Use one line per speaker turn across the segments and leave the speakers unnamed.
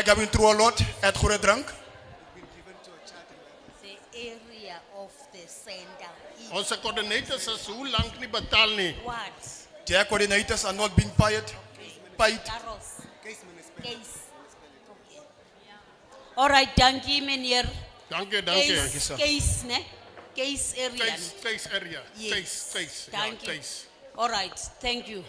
Ik heb een trouwlot, het goede drank.
the area of the center is
Onze coördinator says, hoe lang niet betaal niet?
what?
Their coordinators are not being paid. Paid.
Carros. Case. Okay. All right, dankie meneer.
Dank je, dank je.
Case,
sir.
case ne? Case area.
Thais, Thais area.
ne?
Thais, Thais. ja,
Dank you.
Thais.
All right, thank you.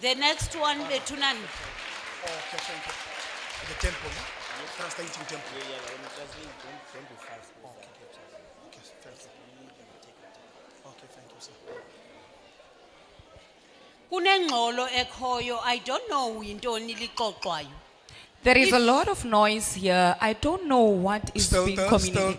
The next one, Betunan.
Okay, thank you. The temple, no? Translating temple.
Yeah, but when you translate, don't, don't be fast. please.
Okay, thank you. Okay, thank you, sir.
Kunengxolo ekhoyo, I don't know intoni lixoxwayo.
There is a
If-
lot of noise here. I don't know what is
Stilte,
being
stilte.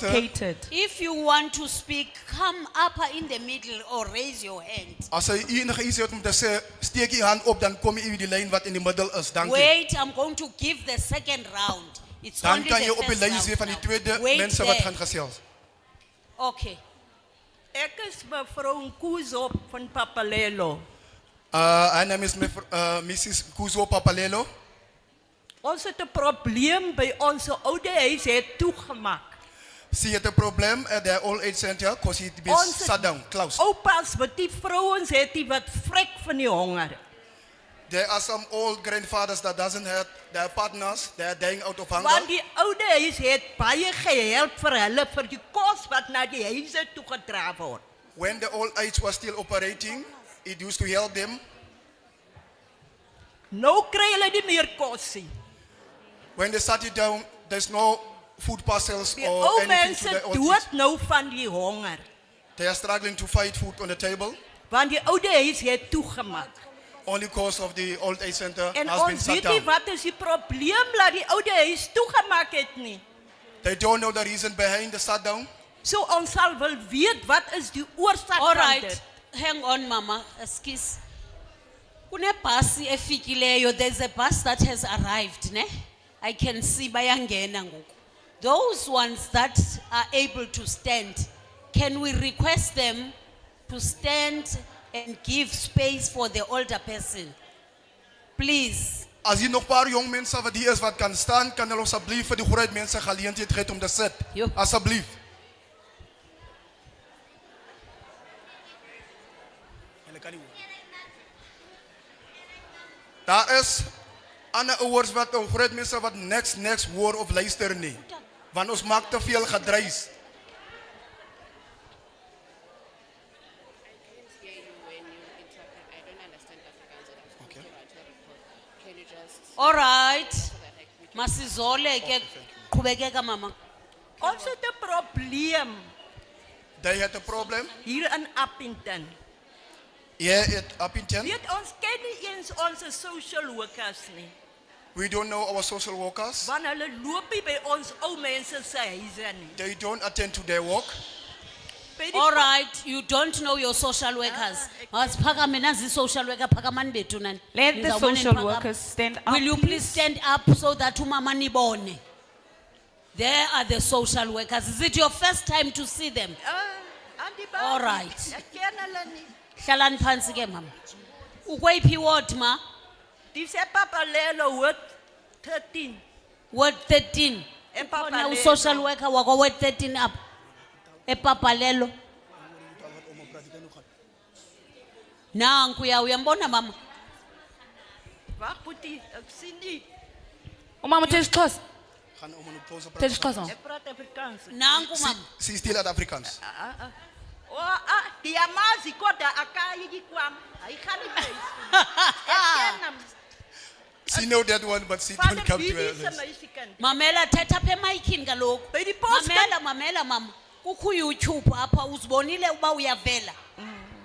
communicated.
If you want to speak, come up in the middle or raise your hand.
Als er enige iets heeft om te zeggen, steek je hand op, dan kom je in die lijn wat in de middel is. Dank je.
Wait, I'm going to give the second round. It's
Dan
only
kan
the
je op een
first
lijn
round
zien van die
now.
tweede
Wait
mensen wat
there.
gaan gezels.
Okay.
Ek is mevrou Nkuzo van Papalelo.
Uh, haar naam is mev- eh, Mrs. Kuzo Papalelo.
Ons het 'n probleem by ons oude huis het toegemaak.
Ze heeft een probleem Eh, at the old age center, because it
Ons
is sat down, closed.
Oh.
oupas wat die vrouens het die wat vrek van die honger.
There are some old grandfathers that doesn't have their partners, they are dying out of
Want
hunger.
die oude huis het baie gehelp vir hulle vir die kos wat na die huise toe gedra word.
When the old age was still operating, it used to help them.
Nou kry hulle nie meer kos nie.
When they sat it down, there's no food parcels
Die
or
ou
anything to
mense
the old age.
dood nou van die honger.
They are struggling to find food on the table.
Want die oude huis het toegemaak.
Only cause of the old age center
En
has been
ons
shut
weet nie
down.
wat is die probleem dat die oude huis toegemaak het nie.
They don't know the reason behind the shutdown.
So ons sal wil weet wat is die oorsaak
All
van
right.
dit.
Hang on mama, excuse. Kunebhasi efikileyo, there's a bus that has arrived, ne? I can see bayangena ngoku. Those ones that are able to stand, can we request them to stand and give space for the older person? Please.
As hier nog een paar jong mensen wat hier is wat kan staan, kan hulle alsjeblieft voor die groot mensen geleentheid geven om te
Jo.
zitten. Alsjeblieft. Daar is ander ouers wat een groot mensen wat niks, niks hoor of luister niet. Want ons maakt te veel gedruis.
hear you when you interpret. I don't understand Afrikaans and I'm speaking okay. about your report. Can you just
All right. Masizole ke qhubekeka mama.
Ons het 'n probleem
They had a problem.
hier in Appington.
Here at Appington,
Weet ons ken nie eens ons social workers nie.
we don't know our social workers.
Want hulle loop nie by ons ou mense se huise nie.
They don't attend to their work.
By die
All right, you don't know your social workers. Masiphakame nazi social worker phakamani bethu nani.
Let the
Nizawubona
social
niphakama.
workers stand up.
Will you please stand up so that umama nibone? There are the social workers. Is it your first time to see them?
Ah, aan die
All right.
Ek ken hulle nie.
Hlalani phansi ke mama. Ukweyiphi ward ma?
Dis se papalelo word 13.
Ward 13.
En
Khona u-social worker wakwa ward 13 apha. Epapalelo. Nankuya uyambona mama?
Wag, Boetie, ek sien nie.
Umama uthetha isiXhosa,
Gaan om een pauze praten.
uthetha isiXhosa. mama.
Ek praat Afrikaans. ah.
Nanku
She,
mama.
she's still at Afrikaans.
O, ah, die amazi kodwa akayi kwam. Hy gaan nie huis toe. Ek ken hom.
She know that one, but she
Vader
don't come to her
Bidie se
list.
meisikant.
Mamela thetha apha emayikhini kaloku.
By die post-
Mamela mamela mama. Kukho uYouTube apha uzibonile uba uyavela.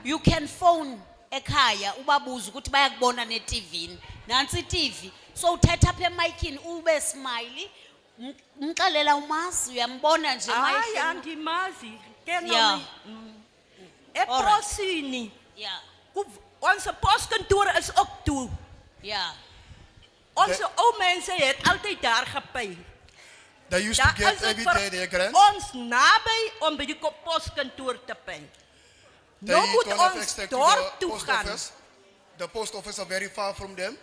You can phone ekhaya ubabuze ukuthi bayakubona neTVini. Nansi iTV. So uthetha apha emayikhini ube smiley. m- Umxelela umazi uyambona nje
Hayi
emayikhini.
andimazi. Ken
Ja.
hom. E
Alright.
Eprosini.
Yeah.
Ons poskantoor is ook toe.
Yeah.
Ons ou mense het altyd daar gepy.
They used to
Daar
get
is eh,
every
dit
day their
vir
grant.
ons naby om by die kop- poskantoor te py.
They
Nou moet
don't have
ons
access to
dorp
the
toe
post
gaan.
office. The post office are very far from them.